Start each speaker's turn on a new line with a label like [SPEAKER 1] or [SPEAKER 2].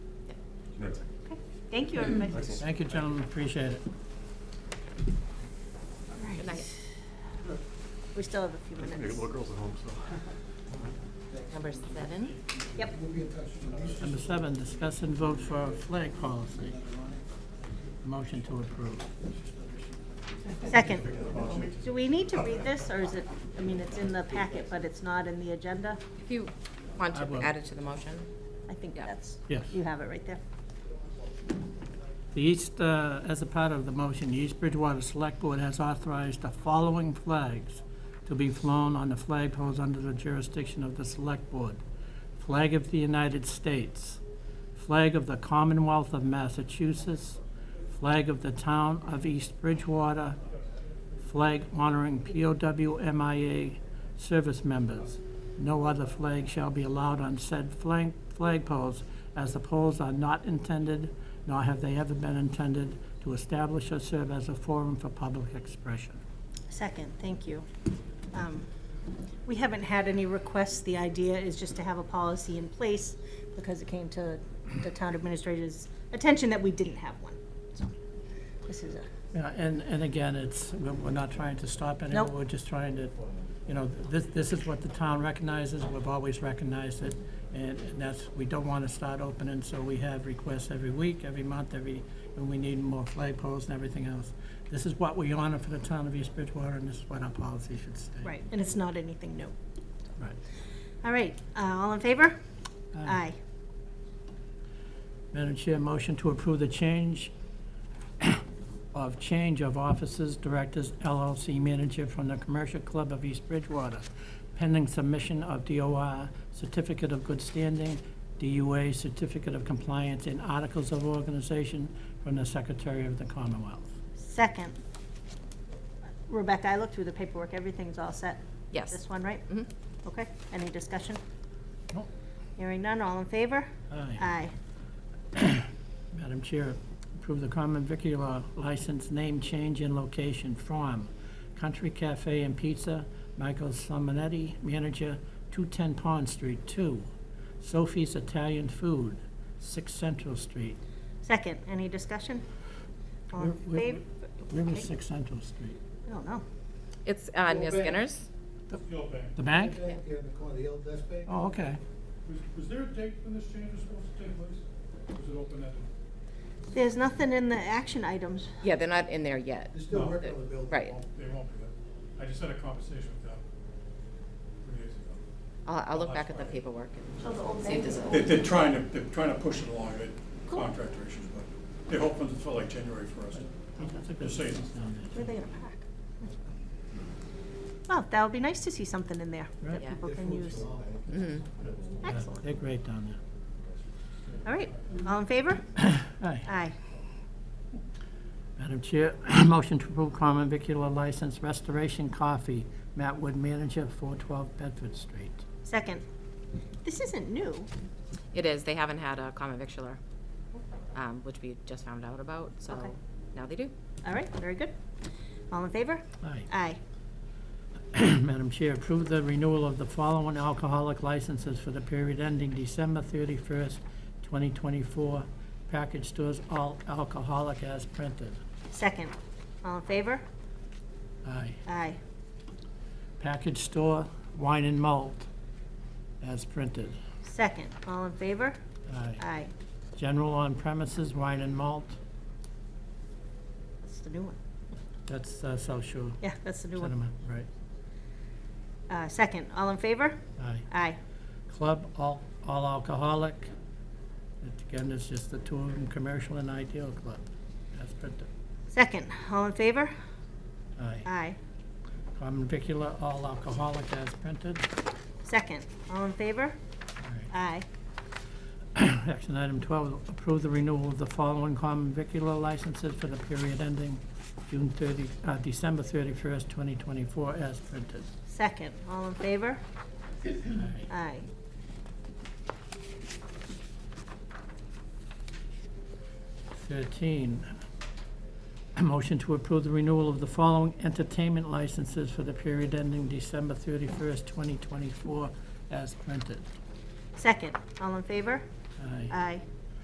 [SPEAKER 1] Thank you, everybody.
[SPEAKER 2] Thank you, gentlemen, appreciate it.
[SPEAKER 1] Good night. We still have a few minutes. Number seven? Yep.
[SPEAKER 2] Number seven, discuss and vote for a flag policy. Motion to approve.
[SPEAKER 1] Second. Do we need to read this, or is it, I mean, it's in the packet, but it's not in the agenda?
[SPEAKER 3] If you want
[SPEAKER 2] I
[SPEAKER 3] to
[SPEAKER 2] will.
[SPEAKER 3] add it to the motion.
[SPEAKER 1] I think
[SPEAKER 3] Yeah.
[SPEAKER 1] that's,
[SPEAKER 2] Yes.
[SPEAKER 1] you have it right there.
[SPEAKER 2] The East, uh, as a part of the motion, the East Bridgewater Select Board has authorized the following flags to be flown on the flag poles under the jurisdiction of the Select Board. Flag of the United States, flag of the Commonwealth of Massachusetts, flag of the Town of East Bridgewater, flag honoring POW MIA service members. No other flag shall be allowed on said flag, flag poles, as the poles are not intended, nor have they ever been intended, to establish or serve as a forum for public expression.
[SPEAKER 1] Second, thank you. Um, We haven't had any requests. The idea is just to have a policy in place because it came to the town administrator's attention that we didn't have one. So this is a,
[SPEAKER 2] Yeah, and, and again, it's, we're we're not trying to stop anyone,
[SPEAKER 1] Nope.
[SPEAKER 2] we're just trying to, you know, this, this is what the town recognizes, we've always recognized it, and and that's, we don't want to start opening, so we have requests every week, every month, every, and we need more flagpoles and everything else. This is what we honor for the town of East Bridgewater, and this is what our policy should stay.
[SPEAKER 1] right, and it's not anything new.
[SPEAKER 2] Right.
[SPEAKER 1] All right, uh, all in favor? Aye.
[SPEAKER 2] Aye. Madam Chair, motion to approve the change of change of officers, directors, LLC manager from the Commercial Club of East Bridgewater, pending submission of DOR, certificate of good standing, DUA, certificate of compliance, and articles of organization from the Secretary of the Commonwealth.
[SPEAKER 1] Second. Rebecca, I looked through the paperwork. Everything's all set.
[SPEAKER 3] Yes.
[SPEAKER 1] This one, right?
[SPEAKER 3] Mhm.
[SPEAKER 1] Okay, any discussion?
[SPEAKER 2] Nope.
[SPEAKER 1] Hearing none, all in favor?
[SPEAKER 2] Aye.
[SPEAKER 1] Aye.
[SPEAKER 2] Madam Chair, approve the common vicular license name change in location from Country Cafe and Pizza, Michael Salmonetti, manager, 210 Pond Street, 2. Sophie's Italian Food, 6 Central Street.
[SPEAKER 1] Second, any discussion? All in
[SPEAKER 2] Where- where-
[SPEAKER 1] favor?
[SPEAKER 2] Where is 6 Central Street?
[SPEAKER 1] I don't know.
[SPEAKER 3] It's uh, near
[SPEAKER 4] Well,
[SPEAKER 3] Skinner's.
[SPEAKER 4] Yo, Ben,
[SPEAKER 2] The bank?
[SPEAKER 4] back here in the corner, the old Best Bay.
[SPEAKER 2] Oh, okay.
[SPEAKER 4] Was, was there a date when this change was supposed to take place? Was it open at?
[SPEAKER 1] There's nothing in the action items.
[SPEAKER 3] Yeah, they're not in there yet.
[SPEAKER 4] They're still
[SPEAKER 3] No.
[SPEAKER 4] working on the building.
[SPEAKER 3] Right.
[SPEAKER 4] They won't be there. I just had a conversation with them three days ago.
[SPEAKER 3] I'll, I'll look back at Oh, the
[SPEAKER 4] Last Friday.
[SPEAKER 3] paperwork
[SPEAKER 1] So the old
[SPEAKER 3] and see if there's
[SPEAKER 1] bank-
[SPEAKER 3] a.
[SPEAKER 4] They, they're trying to, they're trying to push it along, they contractor issues, but they're hoping to fill like January first.
[SPEAKER 2] That's a good
[SPEAKER 4] Just saying.
[SPEAKER 2] business down there.
[SPEAKER 1] Where are they gonna park? Well, that would be nice to see something in there that
[SPEAKER 2] Right.
[SPEAKER 3] Yeah.
[SPEAKER 1] people can use.
[SPEAKER 3] Mhm.
[SPEAKER 2] Yeah,
[SPEAKER 1] Excellent.
[SPEAKER 2] They're great down there.
[SPEAKER 1] All right, all in favor?
[SPEAKER 2] Aye.
[SPEAKER 1] Aye.
[SPEAKER 2] Madam Chair, motion to approve common vicular license Restoration Coffee, Matt Wood, manager, 412 Bedford Street.
[SPEAKER 1] Second, this isn't new.
[SPEAKER 3] It is, they haven't had a common victular, um, which we just found out about, so
[SPEAKER 1] Okay.
[SPEAKER 3] now they do.
[SPEAKER 1] All right, very good. All in favor?
[SPEAKER 2] Aye.
[SPEAKER 1] Aye.
[SPEAKER 2] Madam Chair, approve the renewal of the following alcoholic licenses for the period ending December 31st, 2024. Package stores, all alcoholic as printed.
[SPEAKER 1] Second, all in favor?
[SPEAKER 2] Aye.
[SPEAKER 1] Aye.
[SPEAKER 2] Package store, wine and malt as printed.
[SPEAKER 1] Second, all in favor?
[SPEAKER 2] Aye.
[SPEAKER 1] Aye.
[SPEAKER 2] General on premises, wine and malt,
[SPEAKER 1] That's the new one.
[SPEAKER 2] that's uh, South Shore
[SPEAKER 1] Yeah, that's the new one.
[SPEAKER 2] Cinema, right.
[SPEAKER 1] Uh, second, all in favor?
[SPEAKER 2] Aye.
[SPEAKER 1] Aye.
[SPEAKER 2] Club, all, all alcoholic. Again, it's just the two of them, commercial and ideal club, as printed.
[SPEAKER 1] Second, all in favor?
[SPEAKER 2] Aye.
[SPEAKER 1] Aye.
[SPEAKER 2] Common vicular, all alcoholic as printed.
[SPEAKER 1] Second, all in favor?
[SPEAKER 2] Aye.
[SPEAKER 1] Aye.
[SPEAKER 2] Action item twelve, approve the renewal of the following common vicular licenses for the period ending June thirty, uh, December thirty-first, twenty twenty-four, as printed.
[SPEAKER 1] Second, all in favor?
[SPEAKER 2] Aye.
[SPEAKER 1] Aye.
[SPEAKER 2] Thirteen, a motion to approve the renewal of the following entertainment licenses for the period ending December thirty-first, twenty twenty-four, as printed.
[SPEAKER 1] Second, all in favor?
[SPEAKER 2] Aye.
[SPEAKER 1] Aye.